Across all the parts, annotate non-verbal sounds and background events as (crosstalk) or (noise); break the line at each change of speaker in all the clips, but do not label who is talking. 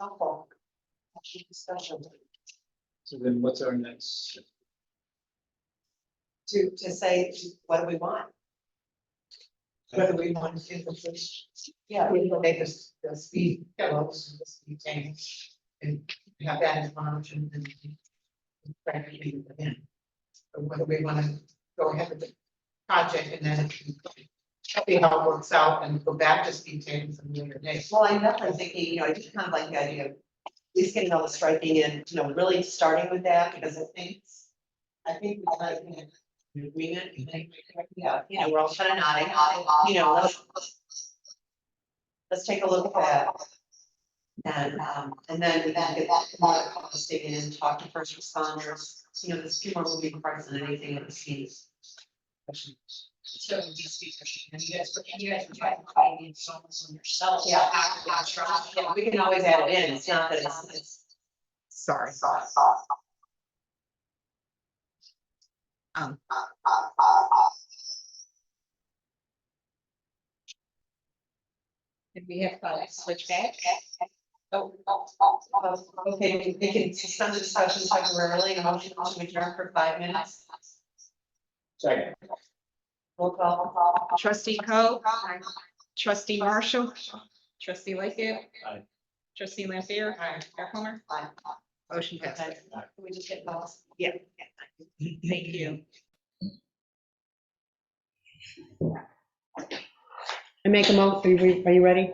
softball. She's special
So then what's our next?
to, to say, what do we want? Whether we want to do the fish. Yeah, we will make this, the speed goals, and the speed change. And have that as one option and. Try to meet with them. Or whether we want to go ahead with the project and then. See how it works out and go back to speed change some later day.
Well, I know, I'm thinking, you know, I just kind of like the idea of at least getting all the striking in, you know, really starting with that, because I think. I think we might be in agreement, we might be correct, yeah, you know, we're all kind of nodding, you know, let's. Let's take a look at that. And, um, and then we can get that more posted in, talk to first responders, you know, this people will be present, anything that sees.
So it would be speed pushing, and you guys, would- and you guys would try to find the installments on yourself.
Yeah.
After that, try to-
Yeah, we can always add it in, it's not that it's, it's.
Sorry. Um.
And we have to switch back.
Oh, oh, oh, oh, Okay, we can suspend the discussion temporarily, and motion to adjourn for five minutes.
Second.
Roll call.
Trustee Coe, trustee Marshall, trustee Lightgev.
Aye.
Trustee Lampier. Aye. Mayor Plummer.
Aye.
Motion passes.
Okay. Can we just get those?
Yeah. Thank you.
I make a mo, are you, are you ready?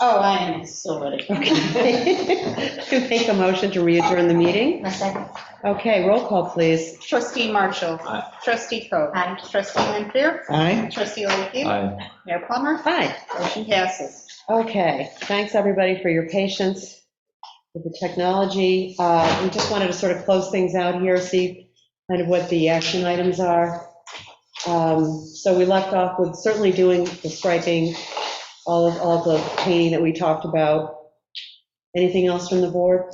Oh, I am so ready.
(laughs) Okay. (laughs) Make a motion to readjourn the meeting.
A second.
Okay, roll call, please.
Trustee Marshall.
Aye.
Trustee Coe. Aye. Trustee Lampier.
Aye.
Trustee Lightgev.
Aye.
Mayor Plummer.
Aye.
Motion passes.
Okay, thanks, everybody, for your patience with the technology. Uh, We just wanted to sort of close things out here, see kind of what the action items are. Um, So we left off with certainly doing the striping, all of, all of the painting that we talked about. Anything else from the board?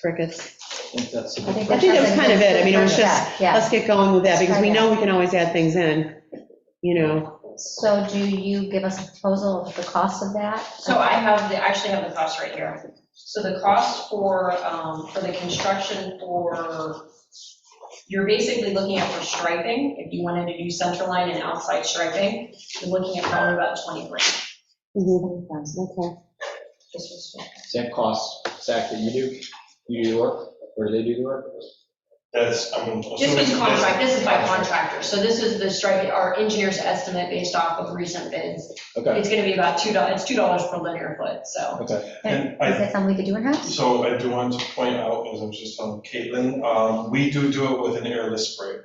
Crickets.
I think that's. the-
I think that was kind of it. I mean, it was just,
Yeah.
let's get going with that, because we know we can always add things in, you know.
So do you give us a proposal of the cost of that?
So I have, the I actually have the cost right here. So the cost for, um, for the construction for, you're basically looking at for striping, if you wanted to do center line and outside striping, you're looking at probably about 20 grand.
Mhm, Okay,
This was-
Does that cost, Zach, that you do, you do the work, or do they do the work?
That's, I'm.
This was
assuming-
contract, this is by contractor, so this is the strike, our engineer's estimate based off of recent bids.
Okay,
It's gonna be about $2, it's $2 per linear foot, so.
okay.
And
Is
I,
that something we could do in-house?
so I do want to point out, as I was just telling Caitlin, um, we do do it with an airless spray.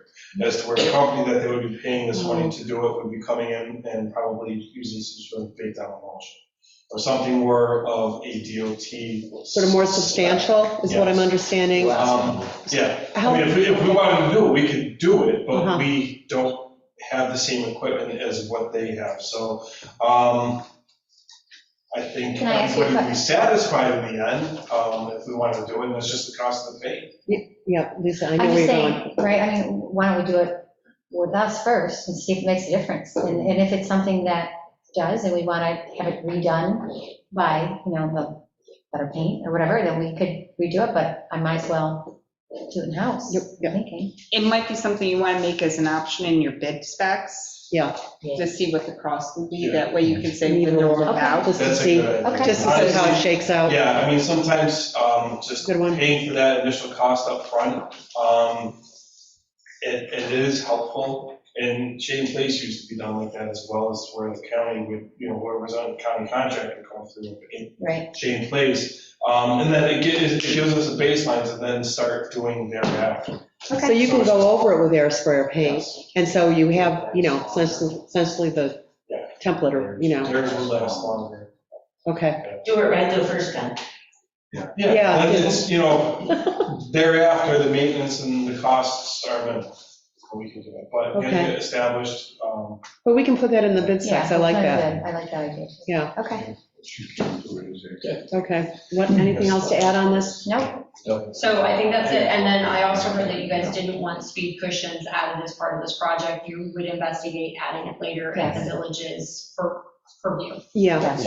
As to where the company that they would be paying this money to do it would be coming in and probably using some sort of big down emulsion. Or something more of a DOT.
sort of more substantial is what I'm understanding.
Um, Yeah, I mean,
How,
if, we- if we wanted to do it, we could do it,
Uh-huh.
but we don't have the same equipment as what they have, so, um, I think
Can I ask you a
everybody would
que-
be satisfied in the end, um, if we wanted to do it, and it's just the cost of the paint.
yeah, Lisa, I know
I'm
where
just
you're going.
saying, right, I mean, why don't we do it with us first and see if it makes a difference? And, and if it's something that does and we want to have it redone by, you know, the better paint or whatever, then we could redo it, but I might as well do it in-house.
Yep,
I'm
yep.
thinking.
It might be something you want to make as an option in your bid specs.
Yeah.
To see what the cost would be, that way you can say with
Neither
or
one.
without.
Just to
That's a
see,
good idea.
Okay.
just to see how it
Honestly,
shakes out.
Yeah, I mean, sometimes, um, just
Oh. Good one.
paying for that initial cost up front, um, it, it is helpful. And Shady Place used to be done like that as well as where the county would, you know, whoever's on county contract would come through and paint
Right,
Shady Place. Um, and then it gives, it gives us the baselines and then start doing thereafter.
So you can go over it with air sprayer paint,
Yes.
and so you have, you know, essentially essentially the
Yeah.
template, or, you know,
Theirs will last longer.
okay.
Do it right the first time.
Yeah,
Yeah, and
good.
it's,
(laughs)
you know, thereafter, the maintenance and the costs are minimal. We can do it, but get
Okay.
it established, um,
But we can put that in the bid
yeah.
specs, I like
that's
that.
good. I like that idea.
Yeah.
Okay,
Okay, what, anything else to add on this?
nope,
So I think that's it, and then I also heard that you guys didn't want speed cushions added as part of this project, you would investigate adding it later at the villages for, for view.
Yeah.
yes.